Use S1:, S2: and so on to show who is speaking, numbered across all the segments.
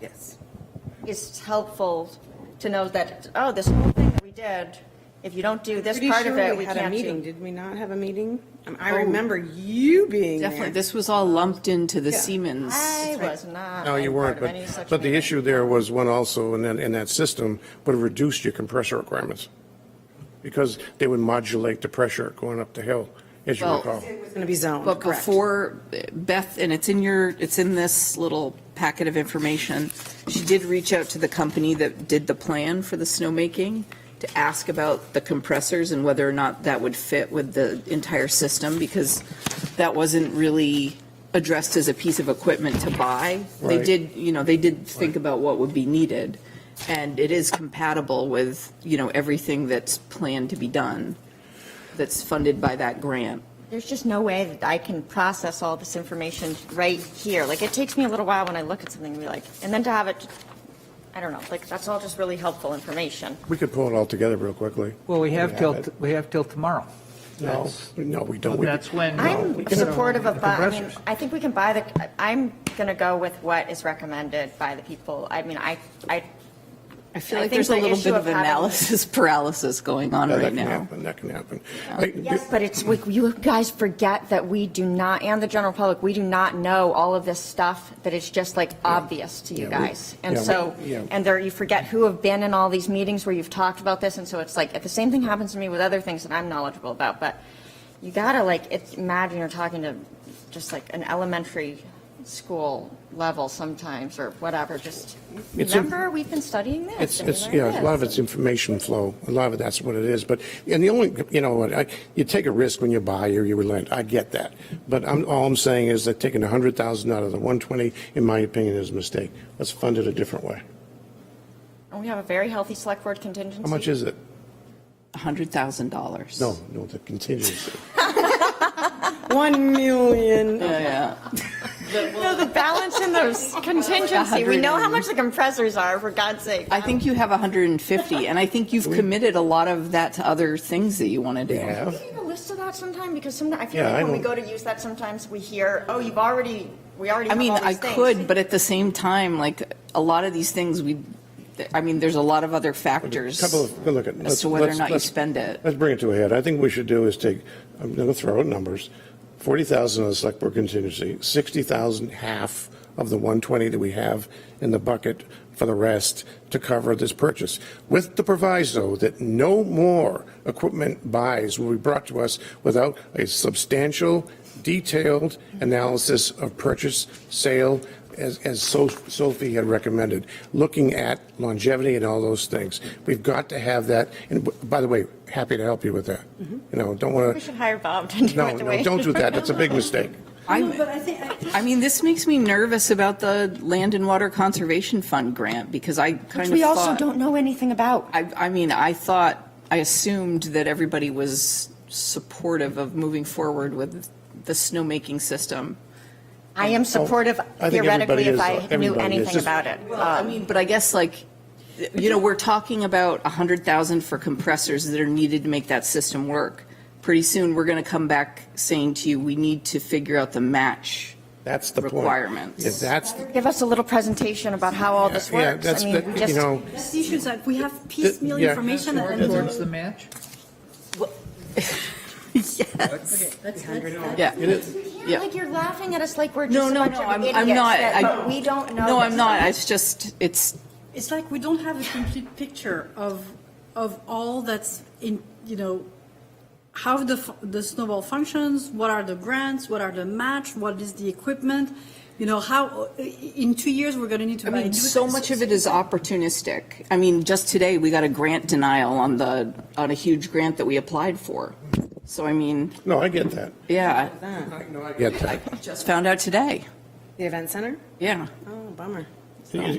S1: Yes.
S2: it's helpful to know that, oh, this whole thing that we did, if you don't do this
S1: Pretty
S2: part of
S1: sure
S2: it,
S1: we
S2: we
S1: had a
S2: can't
S1: meeting,
S2: do. Oh.
S1: did we not have a meeting? Um, I remember you being
S3: Definitely,
S1: there.
S3: this was all lumped into the Siemens.
S2: I was not.
S4: No, you
S2: a
S4: weren't,
S2: part of
S4: but,
S2: any such
S4: but the
S2: meeting.
S4: issue there was one also in that, in that system would have reduced your compressor requirements because they would modulate the pressure going up the hill, as you
S3: Well-
S4: recall.
S1: It was going to be zoned,
S3: But
S1: correct.
S3: before Beth, and it's in your, it's in this little packet of information, she did reach out to the company that did the plan for the snowmaking to ask about the compressors and whether or not that would fit with the entire system because that wasn't really addressed as a piece of equipment to buy. They
S4: Right.
S3: did, you know, they did think about what would be needed. And it is compatible with, you know, everything that's planned to be done, that's funded by that grant.
S2: There's just no way that I can process all this information right here. Like, it takes me a little while when I look at something, to be like, and then to have it, I don't know, like, that's all just really helpful information.
S4: We could pull it all together real quickly.
S5: Well, we have till,
S4: it.
S5: we have till tomorrow.
S4: No, no, we don't. We- uh,
S5: That's when. uh,
S2: I'm supportive of, bu- I mean,
S5: Compressors.
S2: I think we can buy the, I'm going to go with what is recommended by the people. I mean, I, I
S3: I feel
S2: I
S3: like
S2: think
S3: there's a
S2: the
S3: little
S2: issue
S3: bit
S2: of
S3: of
S2: having-
S3: analysis paralysis going on
S4: Yeah,
S3: right
S4: That can
S3: now.
S4: happen, that can happen. I-
S2: Yes, but it's, we- you guys forget that we do not, and the general public, we do not know all of this stuff that is just like obvious to you
S4: Yeah, we-
S2: guys. And
S4: yeah, we-
S2: so,
S4: yeah.
S2: and there, you forget who have been in all these meetings where you've talked about this, and so it's like, if the same thing happens to me with other things that I'm knowledgeable about, but you gotta like, it's, imagine you're talking to just like an elementary school level sometimes, or whatever, just,
S4: It's a-
S2: remember, we've been studying this.
S4: It's,
S2: and
S4: it's,
S2: there it
S4: yeah, a lot of
S2: is."
S4: it's information flow. A lot of it, that's what it is. But, and the only, you know, what, I, you take a risk when you buy or you relent. I get that. But I'm, all I'm saying is that taking a hundred thousand out of the one twenty, in my opinion, is a mistake. Let's fund it a different way.
S2: And we have a very healthy select board contingency.
S4: How much is it?
S3: $100,000.
S4: No, no, the contingency.
S1: 1 million.
S3: Yeah.
S2: No, the balance in those contingency, we know how much the compressors are, for God's sake.
S3: I think you have 150, and I think you've committed a lot of that to other things that you want to do.
S4: Yeah.
S2: Can you have a list of that sometime, because sometimes, I feel
S4: Yeah,
S2: like
S4: I
S2: when we
S4: don't-
S2: go to use that, sometimes we hear, oh, you've already, we already
S3: I
S2: have
S3: mean,
S2: all
S3: I
S2: these things.
S3: could, but at the same time, like, a lot of these things, we, I mean, there's a lot of other factors.
S4: Couple of, good look at.
S3: As to whether or not you spend it.
S4: Let's bring it to a head. I think we should do is take, I'm going to throw out numbers, 40,000 of the select board contingency, 60,000, half of the 120 that we have in the bucket for the rest to cover this purchase, with the proviso that no more equipment buys will be brought to us without a substantial, detailed analysis of purchase, sale, as, as So- Sophie had recommended, looking at longevity and all those things. We've got to have that, and b- by the way, happy to help you with that. You know, don't
S2: We
S4: want to,
S2: should hire Bob to do Mm-hmm. it the
S4: no,
S2: way.
S4: no, don't do that, that's a big mistake.
S3: I, I mean, this makes me nervous about the Land and Water Conservation Fund grant, because I kind
S2: Which
S3: of
S2: we also
S3: thought-
S2: don't know anything about.
S3: I, I mean, I thought, I assumed that everybody was supportive of moving forward with the snowmaking system.
S2: I am supportive
S4: I think
S2: theoretically
S4: everybody
S2: if
S4: is,
S2: I knew
S4: everybody is,
S2: anything
S4: just-
S2: about it. Um,
S3: I mean, but I guess like, you know, we're talking about a hundred thousand for compressors that are needed to make that system work. Pretty soon, we're going to come back saying to you, we need to figure out the match.
S4: That's the point.
S3: Requirements.
S4: If that's,
S2: Give us a little presentation about how all this
S4: yeah, yeah,
S2: works.
S4: that's,
S2: I mean,
S4: that- you
S2: just-
S4: know,
S6: That's the issue is that we have piecemeal
S4: yeah.
S6: information and then
S5: What's the match?
S3: Yeah.
S2: Yeah, like you're laughing at us like we're
S3: No,
S2: just a
S3: no,
S2: bunch
S3: no,
S2: of
S3: I'm,
S2: idiots
S3: I'm not.
S2: that-
S3: I-
S2: but we don't know.
S3: No,
S2: this
S3: I'm not.
S2: stuff.
S3: It's just, it's,
S6: it's like we don't have a complete picture of, of all that's in, you know, how the, f- the snowball functions, what are the grants, what are the match, what is the equipment, you know, how, in two years, we're gonna need to
S3: I
S6: buy.
S3: mean,
S6: new-
S3: so much of it is opportunistic. I mean, just today, we got a grant denial on the, on a huge grant that we applied for. So I mean,
S4: no, I get that.
S3: yeah,
S2: Uh-huh.
S4: No, I get that.
S3: just found out today.
S1: The event center?
S3: Yeah.
S1: Oh, bummer.
S4: It-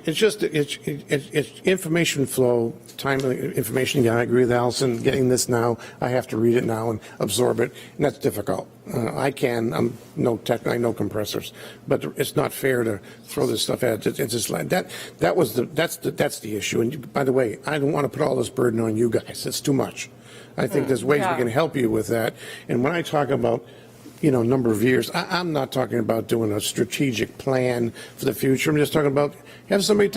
S4: It's just, it's, it's, it's information flow, timely information, yeah, I agree with Allison, getting this now, I have to read it now and absorb it, and that's difficult. Uh, I can, I'm no tech, I know compressors, but it's not fair to throw this stuff at, it. it's just like, that, that was the, that's, the that's the issue, and you- by the way, I don't want to put all this burden on you guys, it's too much. I think there's ways we can help you with that, and when I talk about you know, number of years. I, I'm not talking about doing a strategic plan for the future. I'm just talking about have somebody